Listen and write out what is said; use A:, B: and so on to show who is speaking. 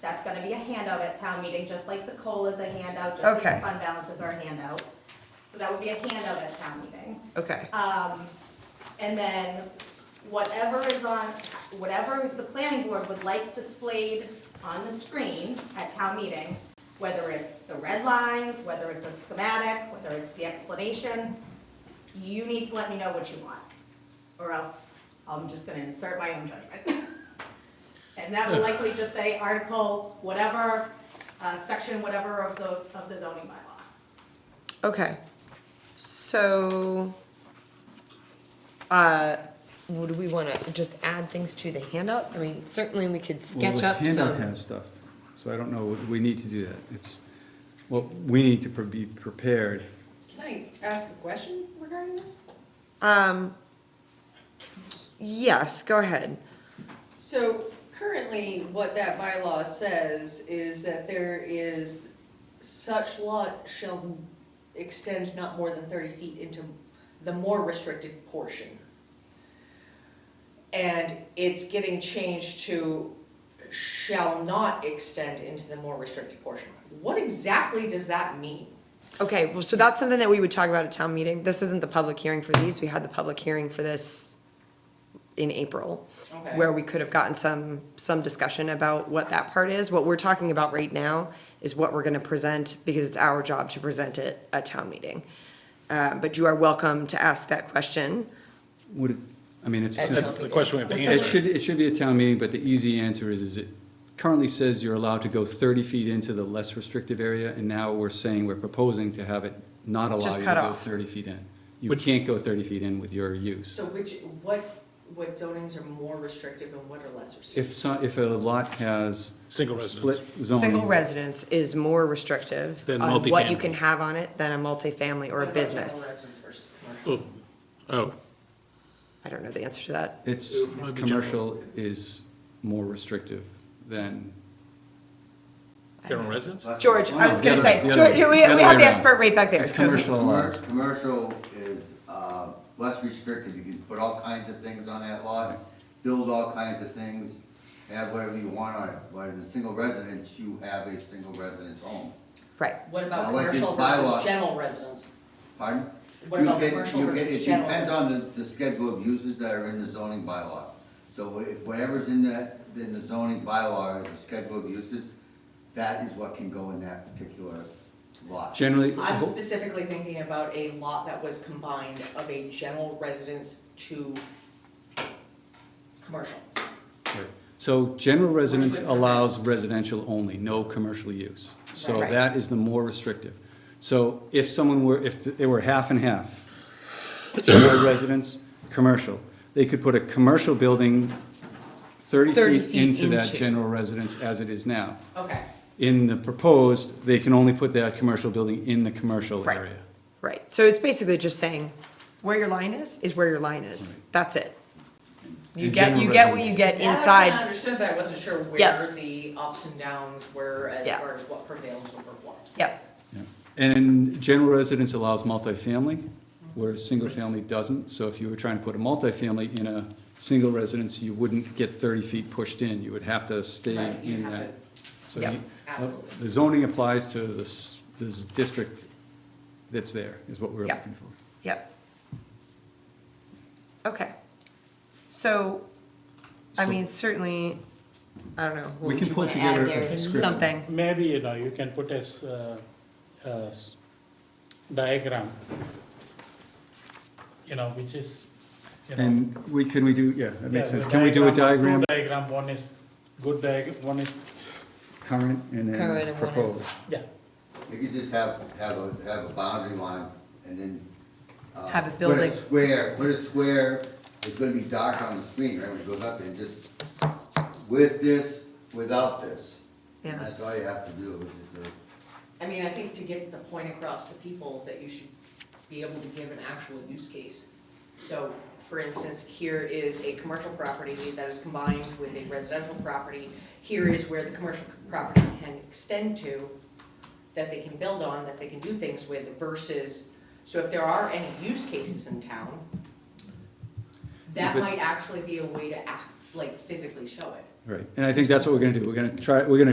A: That's gonna be a handout at town meeting, just like the COLA is a handout, just like
B: Okay.
A: the fund balances are a handout. So that would be a handout at town meeting.
B: Okay,
A: And then whatever is on, whatever the planning board would like displayed on the screen at town meeting, whether it's the red lines, whether it's a schematic, whether it's the explanation, you need to let me know what you want, or else I'm just gonna insert my own judgment. And that will likely just say article, whatever, uh, section, whatever of the, of the zoning bylaw.
B: okay. So, uh, would we wanna just add things to the handout? I mean, certainly we could sketch
C: Well,
B: up
C: the handout
B: some.
C: has stuff, so I don't know, we need to do that. It's, well, we need to pre- be prepared.
D: Can I ask a question regarding this?
B: Um, yes, go ahead.
D: So currently, what that bylaw says is that there is such lot shall extend not more than thirty feet into the more restricted portion. And it's getting changed to shall not extend into the more restricted portion. What exactly does that mean?
B: Okay, well, so that's something that we would talk about at town meeting. This isn't the public hearing for these. We had the public hearing for this in April.
D: Okay.
B: Where we could have gotten some, some discussion about what that part is. What we're talking about right now is what we're gonna present, because it's our job to present it at town meeting. Uh, but you are welcome to ask that question.
C: Would, it- I mean, it's. a
B: That's
C: simple-
E: That's the question we have to
C: It
E: answer.
C: should, it should be a town meeting, but the easy answer is, is it currently says you're allowed to go thirty feet into the less restrictive area, and now we're saying, we're proposing to have it not allow
B: Just
C: you
B: cut
C: to go
B: off.
C: thirty feet in. You
E: Which-
C: can't go thirty feet in with your use.
D: So which, what, what zonings are more restrictive and what are less restrictive?
C: If so, if a lot has.
E: Single
C: Split
E: residence.
C: zoning.
B: Single residence is more restrictive
E: Than
B: on what you
E: multifamily.
B: can have on it than a multifamily or a business.
E: Oh, oh,
B: I don't know the answer to that.
C: It's,
E: It might be
C: commercial is more restrictive than
E: general residence?
B: George,
C: Oh,
B: I
C: no,
B: was
C: the
B: gonna
C: other-
B: say,
C: the other
B: George,
C: way-
B: we, we
C: the other
B: have
C: way
B: the
C: around.
B: expert right back there,
C: It's
B: so-
C: commercial
F: Commer-
C: allowed.
F: Commercial is, uh, less restrictive, you can put all kinds of things on that lot, build all kinds of things, have whatever you want on it, but in a single residence, you have a single residence home,
B: Right.
D: What
F: Now,
D: about
F: like
D: commercial
F: this bylaw-
D: versus general residence?
F: pardon?
D: What
F: You
D: about
F: get-
D: commercial
F: you get-
D: versus general
F: It depends on the, the schedule of uses that are in the zoning bylaw. So wha- whatever's in the, in the zoning bylaw is the schedule of uses, that is what can go in that particular lot.
C: Generally, oh,
D: I'm specifically thinking about a lot that was combined of a general residence to commercial.
C: Right. So general residence
D: Which would-
C: allows residential only, no commercial use. So
B: Right.
C: that is the more restrictive. So if someone were, if it were half and half, general residence, commercial, they could put a commercial building thirty
B: 30
C: feet
B: feet
C: into that
B: into.
C: general residence as it is now.
D: Okay.
C: In the proposed, they can only put that commercial building in the commercial
B: Right.
C: area.
B: Right, so it's basically just saying, where your line is, is where your line is, that's it. You
C: And
B: get,
C: general
B: you get what you
C: residence.
B: get
D: That I kinda
B: inside,
D: understood, but I wasn't sure
B: Yeah.
D: where the ups and downs were as
B: Yeah.
D: far as what prevails over what.
B: yep,
C: Yeah. And general residence allows multifamily, whereas single family doesn't. So if you were trying to put a multifamily in a single residence, you wouldn't get thirty feet pushed in. You would have to stay
D: Right, you
C: in
D: have
C: that. So
B: Yep.
C: you-
D: Absolutely.
C: The zoning applies to this, this district that's there, is what we're
B: Yep.
C: looking for.
B: yep. Okay, so, I
C: So-
B: mean, certainly, I don't know. what
C: We
B: would
C: can
B: you
C: pull
B: wanna add
C: together a
B: there?
C: description.
B: Something,
G: Maybe, you know, you can put as, uh, as diagram, you know, which is, you know.
C: And we, can we do, yeah, that
G: yeah,
C: makes
G: the
C: sense. Can we do a diagram,
G: diagram of two Diagram, one is good diag, one is,
C: current
B: Current
C: and then
B: and one is-
C: proposed?
G: yeah,
F: You could just have, have a, have a boundary line and then. uh,
B: Have a
F: put
B: building.
F: Square, put a square, it's gonna be dark on the screen, right, when it goes up and just with this, without this.
B: Yeah.
F: That's all you have to do, is just uh,
D: I mean, I think to get the point across to people that you should be able to give an actual use case. So, for instance, here is a commercial property that is combined with a residential property. Here is where the commercial property can extend to, that they can build on, that they can do things with versus, so if there are any use cases in town,
C: Yeah,
D: that
C: but-
D: might actually be a way to act, like physically show it.
C: Right, and I think that's what we're gonna do. We're gonna try, we're gonna